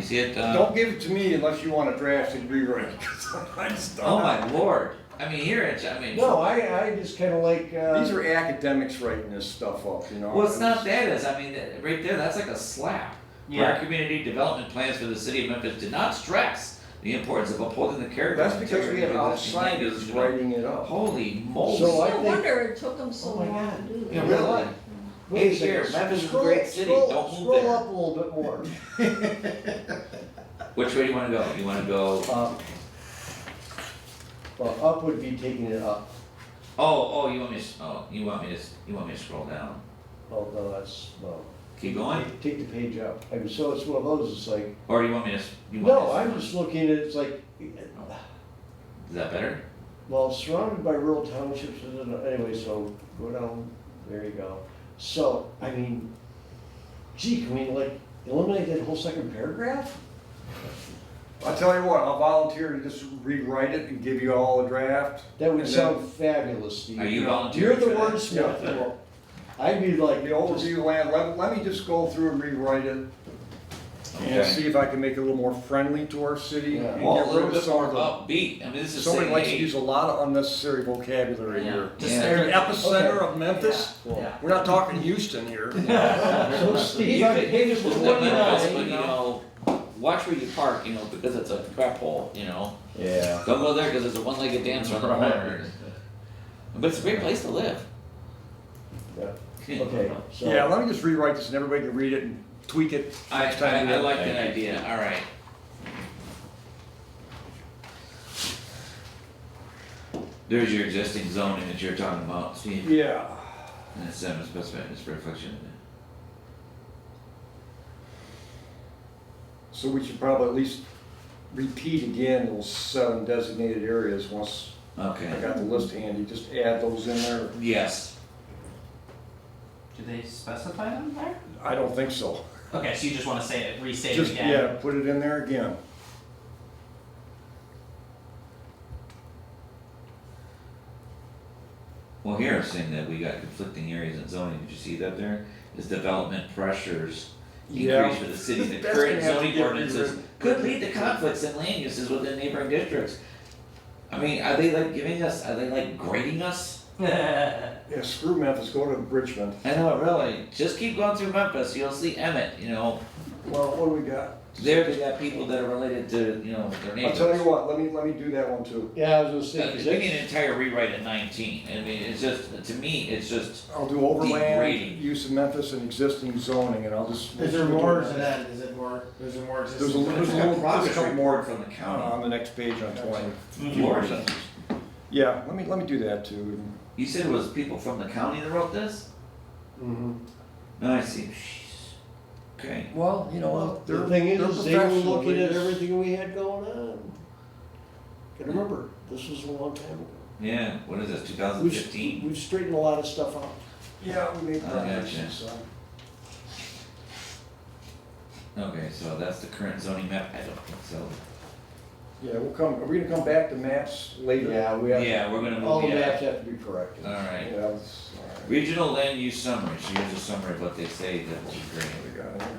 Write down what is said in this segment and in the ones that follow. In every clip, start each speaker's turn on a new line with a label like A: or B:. A: see it, uh,
B: Don't give it to me unless you want a draft and rewrite, 'cause I just don't.
A: oh my lord, I mean, here it's, I mean.
C: No, I, I just kinda like,
B: These
C: uh,
B: are academics writing this stuff up, you know?
A: Well, it's not that is, I mean, that- right there, that's like a slap. Where
C: Yeah.
A: Our community development plans for the city of Memphis did not stress the importance of upholding the character.
B: That's
A: and
B: because we
A: integrity
B: have
A: of existing
B: outsiders
A: language.
B: writing it up.
A: Holy moly.
C: So I
D: No
C: think-
D: wonder it took them so
C: Oh my
D: long to
C: God.
D: do that.
A: Yeah,
C: you know
A: really.
C: what? Wait a
A: Hey, here,
C: second.
A: Memphis is a
C: Scroll-
A: great city.
C: scroll-
A: Don't move
C: Scroll
A: there.
C: up a little bit more.
A: Which way do you wanna go? You wanna go, oh,
C: Up. Um, Well, up would be taking it up,
A: oh, oh, you want me to, s- oh, you want me to, s- you want me to scroll down?
C: although that's, well.
A: Keep going?
C: Take the page up. I mean, so it's one of those, it's like,
A: Or you want me to, s- you want me to?
C: no, I'm
A: s-
C: just looking at, it's like,
A: Is that better?
C: well, surrounded by rural townships, I don't know. anyway, so go down, there you go. So, I mean, gee, can we like eliminate that whole second paragraph?
B: I'll tell you what, I'll volunteer to just rewrite it and give you all a draft.
C: That would
B: And
C: sound fabulous, Steve.
A: Are you
C: You're
A: volunteering
C: the
A: for that?
C: wordsmith. Well, I'd be like,
B: The overview land, let, let me just go through and rewrite it and
A: Okay.
B: see if I can make it a little more friendly to our city.
C: Yeah.
B: and
A: Well, a
B: get
A: little
B: rid of
A: bit
B: some
A: more
B: of the-
A: upbeat, I mean, this is city
B: Somebody likes to
A: aid.
B: use a lot of unnecessary vocabulary here.
A: Yeah.
B: Just the epicenter of Memphis,
C: Yeah.
D: Yeah.
B: we're not talking Houston here.
C: So Steve,
A: You
C: on
A: could-
C: page
A: Well, that might be, But you
C: 49.
A: know, watch where you park, you know, because it's a crap hole, you know,
C: Yeah.
A: don't go there because it's a one-legged dancer on the corner. But it's a great place to live.
C: Okay, so.
B: Yeah, let me just rewrite this and everybody can read it and tweak it
A: I,
B: next time.
A: I,
B: we
A: I
B: have-
A: like that idea, all right. There's your existing zoning that you're talking about, Steve,
B: Yeah.
A: and it's seven specified, it's a reflection of it.
B: So we should probably at least repeat again those seven designated areas once I
A: Okay,
B: got the list handy, just add those in there.
A: yes,
E: Do they specify them there?
B: I don't think so.
E: Okay, so you just wanna say it, restate it
B: Just,
E: again?
B: yeah, put it in there again.
A: well, here it's saying that we got conflicting areas in zoning, did you see that there? Is development pressures
B: Yeah.
A: increase for the city, the
B: That's
A: current
B: gonna have to
A: zoning
B: get
A: ordinances
B: rewritten.
A: could lead to conflicts in land uses within neighboring districts. I mean, are they like giving us, are they like grading us?
B: Yeah, screw Memphis, go to Richmond.
A: I know, really. Just keep going through Memphis. You'll see Emmett. You know,
B: Well, what do we got?
A: there they got people that are related to you know their
B: I'll
A: neighbors.
B: tell you what, let me, let me do that one too.
C: Yeah, I was gonna say,
A: Uh,
C: 'cause
A: We
C: that-
A: need an entire rewrite at 19. I mean, it's just to me, it's just
B: I'll do overland,
A: Degrading.
B: use of Memphis and existing zoning, and I'll just.
F: Is there more to that, is it more, is there more
B: There's a
F: existing?
B: little, there's a little, there's a
A: progress
B: couple more
A: report from the county.
B: on the next page on twenty.
E: Hmm,
A: Lord,
B: Yeah, let me, let me do that too.
A: you said it was people from the county that wrote this?
C: Mhm.
A: No, I see. Jeez. Okay.
B: Well, you know what?
C: the thing is, is they were looking at everything we had going on. Gotta remember, this was a long time ago.
A: Yeah. What is this?
C: We've-
A: 2015.
C: We've straightened a lot of stuff out.
B: Yeah, we made
A: I gotcha.
B: progress, so.
A: Okay, so that's the current zoning map. I don't think so.
B: Yeah, we'll come, are we gonna come back to maps later?
C: Yeah, we have,
A: Yeah, we're gonna move.
C: all the
A: yeah.
C: maps have to be corrected.
A: All right.
B: Yeah, that's, all right.
A: Regional land use summary, so here's a summary of what they say that will be great.
B: we got it here.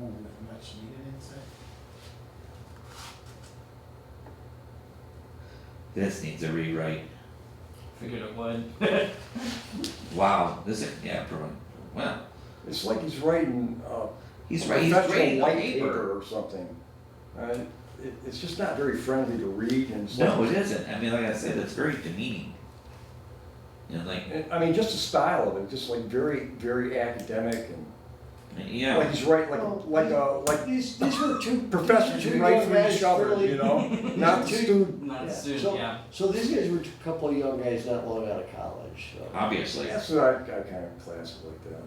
F: Ooh, Much needed insight.
A: This needs a rewrite.
E: Figured it would.
A: Wow, this is, yeah, probably, well,
B: It's like he's writing, uh,
A: he's right, he's
B: professional
A: writing a
B: white
A: paper.
B: paper or something. Uh, it, it's just not very friendly to read and stuff.
A: No, it isn't, I mean, like I said, it's very demeaning. And like,
B: And, I mean, just the style of it, just like very, very academic and, like
A: yeah,
B: he's writing
C: Well,
B: like, like a, like
C: These, these were two.
B: professors
C: two
B: who write for
C: young
B: each
C: guys
B: other,
C: fairly-
B: you know? Not the
C: Two-
B: student.
E: Not
C: Yeah,
E: soon,
C: so-
E: yeah.
C: So these guys were a couple of young guys not long out of college, so.
A: obviously,
B: That's what I, I kind of class it like that.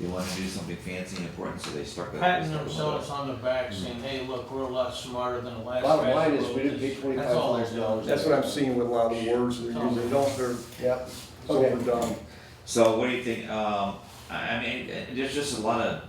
A: they wanna do something fancy and important, so they stuck that.
F: Patting themselves on the back saying, hey, look, we're a lot smarter than the last guy.
C: Bottom line
F: who
C: is,
F: wrote
C: we didn't
F: this."
C: pay twenty-five
F: That's all they're
C: thousand
F: doing.
C: dollars.
B: That's what I'm seeing with a lot of the words they're using, they don't, they're,
C: Yep,
B: it's
C: okay.
B: overdone.
A: So what do you think, um, I, I mean, uh, there's just a lot of